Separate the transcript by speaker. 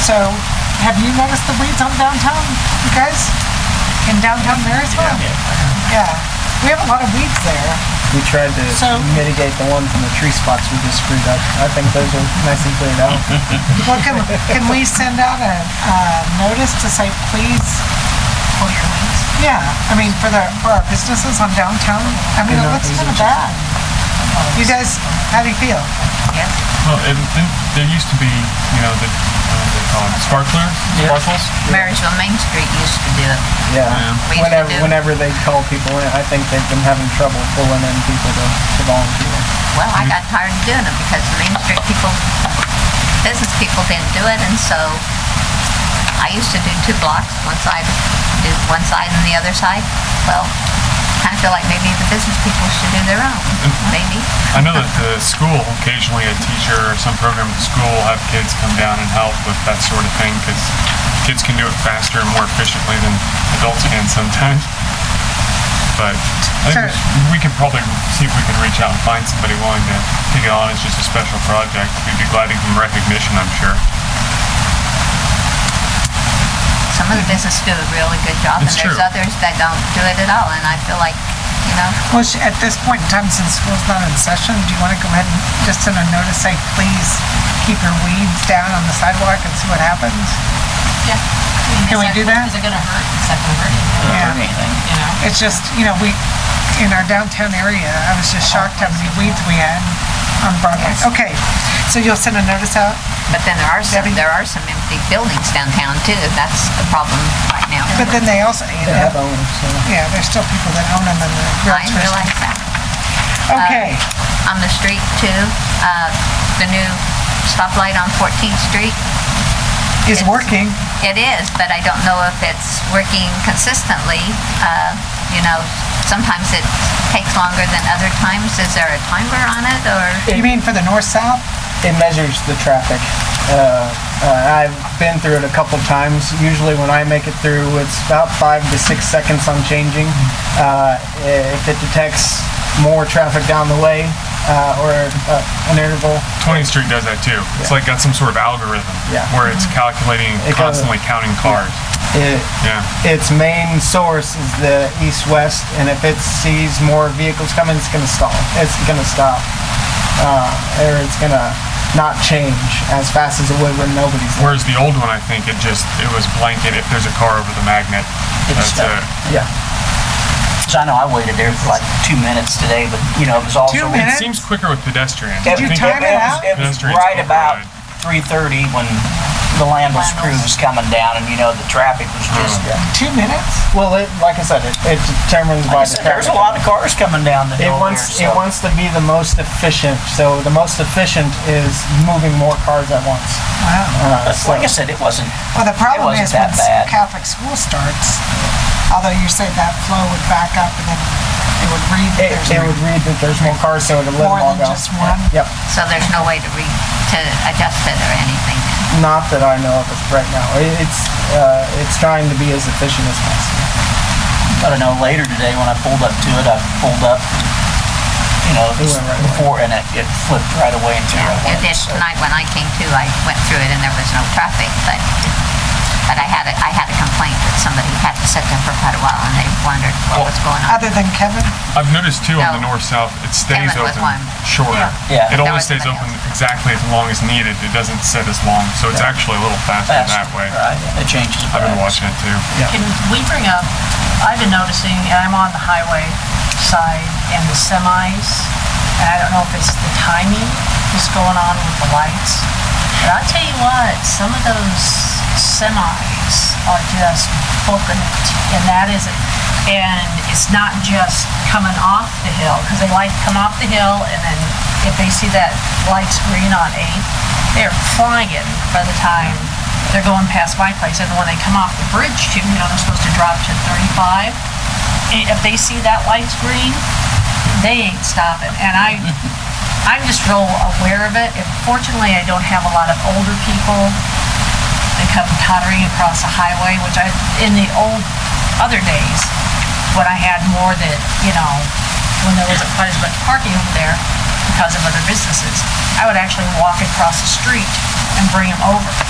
Speaker 1: So, have you noticed the weeds on downtown, you guys? In downtown Marysville? Yeah. We have a lot of weeds there.
Speaker 2: We tried to
Speaker 1: So-
Speaker 2: mitigate the one from the tree spots we just screwed up. I think those are nice and cleared out.
Speaker 1: Well, can, can we send out a, uh notice to say, please? Yeah, I mean, for the, for our businesses on downtown, I mean, it
Speaker 2: Yeah,
Speaker 1: looks
Speaker 2: these
Speaker 1: kind
Speaker 2: are
Speaker 1: of bad. You guys, how do you feel?
Speaker 3: Well, it, th- there used to be, you know, the, uh, what they call it, sparklers,
Speaker 2: Yeah.
Speaker 3: sparkles.
Speaker 4: Marysville Main Street used to do it.
Speaker 2: Yeah.
Speaker 4: We used to
Speaker 2: Whenever,
Speaker 4: do-
Speaker 2: whenever they call people in, I think they've been having trouble pulling in people to, to volunteer.
Speaker 4: Well, I got tired of doing it because the Main Street people, business people didn't do it, and so I used to do two blocks, one side, do one side and the other side. Well, kind of feel like maybe the business people should do their own, maybe.
Speaker 3: I know that the school, occasionally a teacher or some program at school will have kids come down and help with that sort of thing because kids can do it faster and more efficiently than adults can sometimes. But I think
Speaker 1: Sure.
Speaker 3: we could probably see if we can reach out and find somebody willing to take it on as just a special project. We'd be glad to give them recognition, I'm sure.
Speaker 4: Some of the businesses do a really good job, and
Speaker 3: It's
Speaker 4: there's
Speaker 3: true.
Speaker 4: others that don't do it at all, and I feel like, you know,
Speaker 1: Well, sh- at this point in time, since school's not in session, do you want to go ahead and just send a notice, say, please keep your weeds down on the sidewalk and see what happens?
Speaker 5: Yeah.
Speaker 1: Can we do that?
Speaker 5: Is it gonna hurt? It's not gonna hurt anything,
Speaker 1: Yeah.
Speaker 5: you know?
Speaker 1: It's just, you know, we, in our downtown area, I was just shocked how many weeds we had on Broadway. Okay, so you'll send a notice out?
Speaker 4: but then there are some,
Speaker 1: Debbie?
Speaker 4: there are some empty buildings downtown too. That's the problem right now.
Speaker 1: But then they also, you
Speaker 2: They
Speaker 1: know,
Speaker 2: have owners, so.
Speaker 1: yeah, there's still people that own them and the
Speaker 4: I
Speaker 1: realtors.
Speaker 4: realize that.
Speaker 5: uh,
Speaker 1: Okay,
Speaker 4: on the street too. Uh, The new stoplight on 14th Street,
Speaker 1: is working.
Speaker 4: it is, but I don't know if it's working consistently. Uh, You know, sometimes it takes longer than other times. Is there a timer on it or?
Speaker 1: You mean for the north-south?
Speaker 2: It measures the traffic. Uh, uh, I've been through it a couple times. Usually when I make it through, it's about five to six seconds I'm changing. Uh, if it detects more traffic down the way, uh, or uh, an interval,
Speaker 3: 20th Street does that too. It's like got some sort of algorithm
Speaker 2: Yeah.
Speaker 3: where it's calculating, and
Speaker 2: It kinda-
Speaker 3: constantly counting cars.
Speaker 2: it,
Speaker 3: Yeah.
Speaker 2: its main source is the east-west, and if it sees more vehicles coming, it's gonna stall. It's gonna stop, uh, or it's gonna not change as fast as it would when nobody's there.
Speaker 3: Whereas the old one, I think it just it was blanket. If there's a car over the magnet,
Speaker 6: It's
Speaker 3: that's it.
Speaker 6: stuck.
Speaker 2: Yeah.
Speaker 6: So I know I waited there for like two minutes today, but you know, it was also.
Speaker 1: Two
Speaker 3: It
Speaker 1: minutes?
Speaker 3: seems quicker with pedestrians.
Speaker 6: Did
Speaker 3: I
Speaker 1: you
Speaker 3: think
Speaker 1: time
Speaker 3: it-
Speaker 1: it out?
Speaker 6: It was
Speaker 3: Pedestrians
Speaker 6: right
Speaker 3: override.
Speaker 6: about three thirty when the Landless crew was coming down and you know, the traffic was just,
Speaker 1: Two minutes?
Speaker 2: Well, it, like I said, it, it determines
Speaker 6: like
Speaker 2: by
Speaker 6: I
Speaker 2: the
Speaker 6: said,
Speaker 2: traffic.
Speaker 6: there's a lot of cars coming down the
Speaker 2: It
Speaker 6: hill there,
Speaker 2: wants
Speaker 6: so.
Speaker 2: it wants to be the most efficient. So the most efficient is moving more cars at once.
Speaker 1: Wow.
Speaker 2: Uh,
Speaker 6: But
Speaker 2: so-
Speaker 6: Like I said, it wasn't,
Speaker 1: Well, the problem
Speaker 6: wasn't
Speaker 1: is when
Speaker 6: that bad.
Speaker 1: Catholic school starts, although you say that flow would back up and then it would read that
Speaker 2: it,
Speaker 1: there's
Speaker 2: it would read that there's more cars, so it'll
Speaker 1: more
Speaker 2: let them all
Speaker 1: than
Speaker 2: go.
Speaker 1: just one.
Speaker 2: Yep,
Speaker 4: So there's no way to re, to adjust it or anything.
Speaker 2: not that I know of as- right now. It, it's uh, it's trying to be as efficient as possible.
Speaker 6: I don't know, later today when I pulled up to it, I pulled up, you know,
Speaker 2: It went right away.
Speaker 6: before and it, it flipped right away into right
Speaker 4: It
Speaker 6: away.
Speaker 4: did
Speaker 6: so.
Speaker 4: tonight when I came to, I went through it and there was no traffic, but, but I had a, I had a complaint that somebody had to sit there for quite a while and they wondered what was going on.
Speaker 1: Other than Kevin?
Speaker 3: I've noticed too on the
Speaker 4: No.
Speaker 3: north south, it stays
Speaker 4: Kevin was
Speaker 3: open
Speaker 4: one.
Speaker 3: shorter.
Speaker 6: Yeah.
Speaker 3: It
Speaker 6: That
Speaker 3: only
Speaker 4: was
Speaker 3: stays
Speaker 4: something
Speaker 3: open exactly as long as needed. It doesn't sit as long, so it's actually a little faster
Speaker 6: Fast,
Speaker 3: that way.
Speaker 6: Right, it changes.
Speaker 3: I've been
Speaker 6: fast.
Speaker 3: watching it too.
Speaker 5: Can we bring up, I've been noticing, and I'm on the highway side and the semis, and I don't know if it's the timing that's going on with the lights, but I'll tell you what, some of those semis are just booking it, and that is it. And it's not just coming off the hill, because they like to come off the hill, and then if they see that light's green on eight, they're flying by the time they're going past my place, and when they come off the bridge, too, you know, they're supposed to drop to 35. And If they see that light's green, they ain't stopping. And I, I'm just real aware of it, and fortunately, I don't have a lot of older people that come tottering across a highway, which I, in the old, other days, when I had more that, you know, when there wasn't quite as much parking over there because of other businesses, I would actually walk across the street and bring them over.